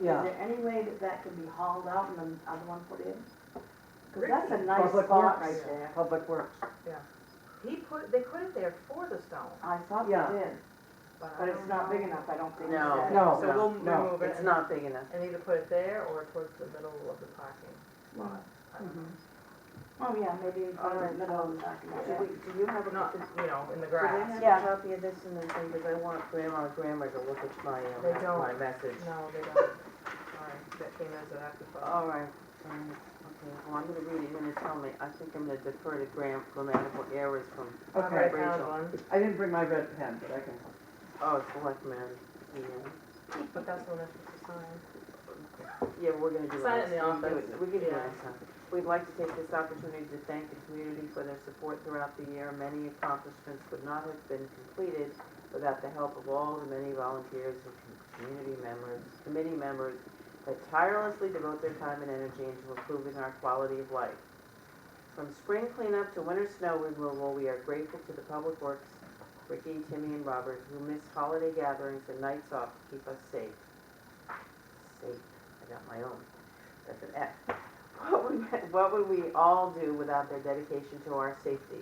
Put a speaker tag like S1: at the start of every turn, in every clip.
S1: Is
S2: yeah.
S1: there any way that that can be hauled out and the other one put in? Cause
S3: Ricky,
S1: that's a nice
S2: Public
S1: spot
S2: Works.
S1: right there.
S2: Public Works,
S3: He put, they put it there for the stone,
S1: I thought
S2: Yeah.
S1: they did,
S3: but I
S1: but it's
S3: don't
S1: not
S3: know.
S1: big enough, I don't think.
S4: No.
S1: that-
S2: No.
S3: So we'll
S2: no,
S3: remove it
S4: It's
S3: and-
S4: not big enough.
S3: and either put it there or towards the middle of the parking lot. I don't know.
S1: Oh, yeah, maybe in front of the middle of the back.
S4: Do we, do you have a,
S3: Not,
S4: do
S3: you know, in the
S4: they
S3: grass.
S4: have
S1: Yeah.
S4: a copy of this and then, because I want grandma and grandma to look at my,
S3: They
S4: uh,
S3: don't.
S4: my message.
S3: No, they don't. Sorry, that came as an afterthought.
S4: All right, um, okay, well, I'm gonna read it, you're gonna tell me, I think I'm gonna defer to gram, grammatical errors from,
S2: okay.
S3: Alright, now
S4: Rachel.
S3: one,
S2: I didn't bring my red pen, but I can,
S4: oh, selectmen, yeah.
S3: But that's one that's to sign.
S4: Yeah, we're gonna do it.
S3: Sign it in the
S4: We can do
S3: office.
S4: it- We can do it
S3: Yeah.
S4: next time. We'd like to take this opportunity to thank the community for their support throughout the year. Many accomplishments would not have been completed without the help of all the many volunteers and com- community members, committee members that tirelessly devote their time and energy into improving our quality of life. From spring cleanup to winter snow removal, we are grateful to the Public Works, Ricky, Timmy, and Robert, who miss holiday gatherings and nights off to keep us safe. Safe, I got my own, that's an F. What would, what would we all do without their dedication to our safety?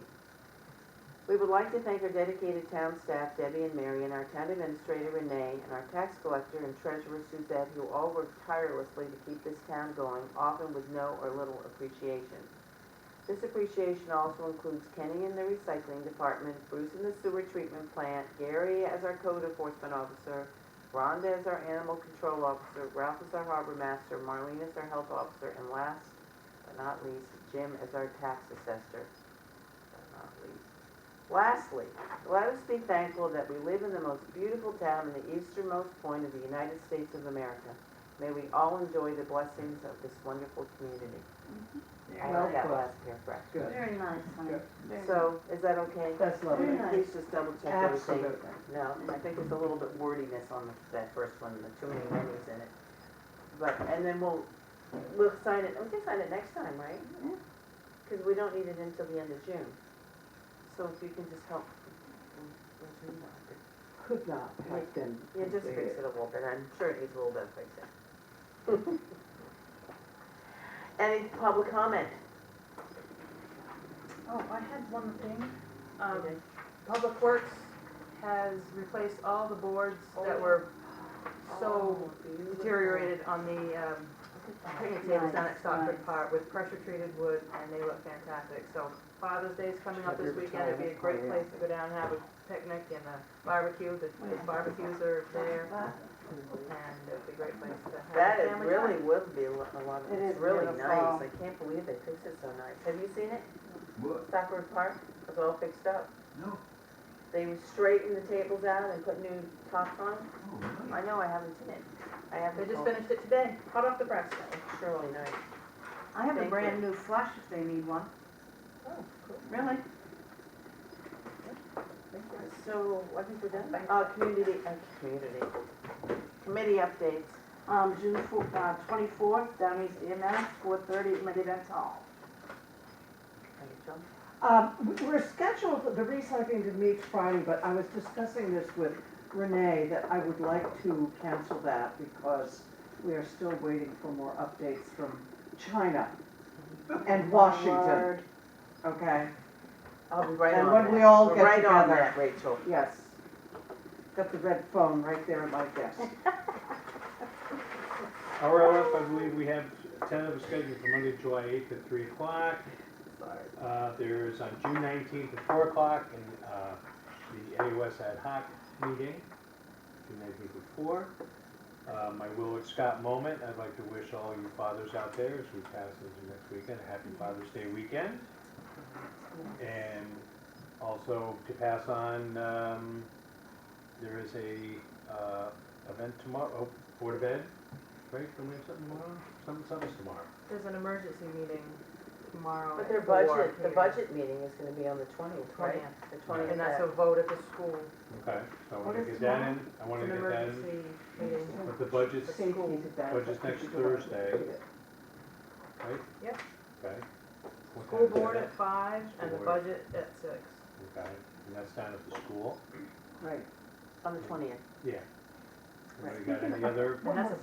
S4: We would like to thank our dedicated town staff, Debbie and Mary, and our town administrator, Renee, and our tax collector and treasurer, Suzette, who all work tirelessly to keep this town going, often with no or little appreciation. This appreciation also includes Kenny in the recycling department, Bruce in the sewer treatment plant, Gary as our code enforcement officer, Rhonda is our animal control officer, Ralph is our harbor master, Marlene is our health officer, and last but not least, Jim is our tax assessor. But not least. Lastly, let us be thankful that we live in the most beautiful town in the easternmost point of the United States of America. May we all enjoy the blessings of this wonderful community. I
S2: Well
S4: like that
S2: put.
S4: last paragraph.
S2: good,
S1: Very nice, honey.
S2: Good.
S1: Very
S4: So, is that okay?
S2: that's lovely.
S1: Very
S4: Please just double check everything.
S2: Absolutely.
S4: No, I think there's a little bit wordiness on the- that first one, the too many many's in it. But, and then we'll, we'll sign it, we can sign it next time, right?
S1: Yeah.
S4: Because we don't need it until the end of June. So if you can just help, mm, mm,
S2: Could not have been.
S4: yeah, just fix
S2: completed.
S4: it a little bit, I'm sure it needs a little bit of fixing. Any public comment?
S3: Oh, I had one thing. Um, Public Works has replaced all the boards that were
S1: Oh.
S3: so deteriorated on the, um, picnic tables down at Stockford
S1: Nice,
S3: Park with pressure treated wood and they look fantastic. So Father's Day's coming up this
S2: Every
S3: weekend, it'd be a
S2: time,
S3: great
S2: yeah.
S3: place to go down and have a picnic and a barbecue, the the barbecues are there. And it'd be a great place to have.
S4: That
S3: a
S4: is
S3: family
S4: really
S3: time.
S4: would be a lot, a lot,
S1: It
S4: it's
S1: is
S4: really
S1: beautiful.
S4: nice, I can't believe they fixed it so nice, have you seen it?
S5: What?
S4: Stockford Park was all fixed up,
S5: No.
S4: they straightened the tables out and put new tops on,
S5: Oh, really?
S4: I know, I haven't seen it, I
S3: They
S4: haven't,
S3: just
S4: oh,
S3: finished it today, hot off the press.
S4: it's surely nice.
S1: I have
S4: Thank
S1: a
S4: you.
S1: brand new flush if they need one.
S3: Oh, cool.
S1: Really?
S4: So, I think we're done,
S3: Thank
S4: uh, community, uh, community, committee updates,
S1: Um, June four, uh, twenty-fourth, down East EMS, four thirty, at Medivance Hall.
S4: Rachel,
S2: Um, we- we're scheduled, the recycling to meet Friday, but I was discussing this with Renee, that I would like to cancel that because we are still waiting for more updates from China and Washington,
S1: Word.
S2: okay?
S4: I'll be right on
S2: And
S4: that.
S2: when we all
S4: We're
S2: get
S4: Right on
S2: together-
S4: that, Rachel.
S2: Yes. Got the red phone right there at my desk.
S6: RRF, I believe we have ten of us scheduled for Monday, July eighth at three o'clock. Uh, there's on June nineteenth at four o'clock and, uh, the AOS ad hoc meeting, June nineteenth at four. Uh, my Willard Scott moment, I'd like to wish all you fathers out there as we pass into next weekend, a happy Father's Day weekend. And also to pass on, um, there is a, uh, event tomorrow, oh, Board of Ed, right, don't we have something tomorrow? Something, something's tomorrow.
S3: There's an emergency meeting tomorrow
S4: But
S3: at
S4: their
S3: four
S4: budget, the
S3: here.
S4: budget meeting is gonna be on the twentieth, right?
S3: 20th.
S4: The twentieth.
S3: And that's a vote at the school.
S6: Okay, so I
S3: What
S6: wanna
S3: is
S6: get that in, I wanna
S3: It's an
S6: get that in,
S3: emergency meeting.
S6: but the budget's,
S3: Six.
S2: Safety is a bad-
S6: Which is next Thursday. right?
S3: Yep.
S6: Okay. What
S3: School
S6: time is
S3: board
S6: that?
S3: at five and the
S6: School board.
S3: budget at six.
S6: Okay, and that's down at the school,
S2: Right.
S4: On the twentieth.
S6: yeah.
S2: Right.
S6: Anybody got any other
S3: And that's a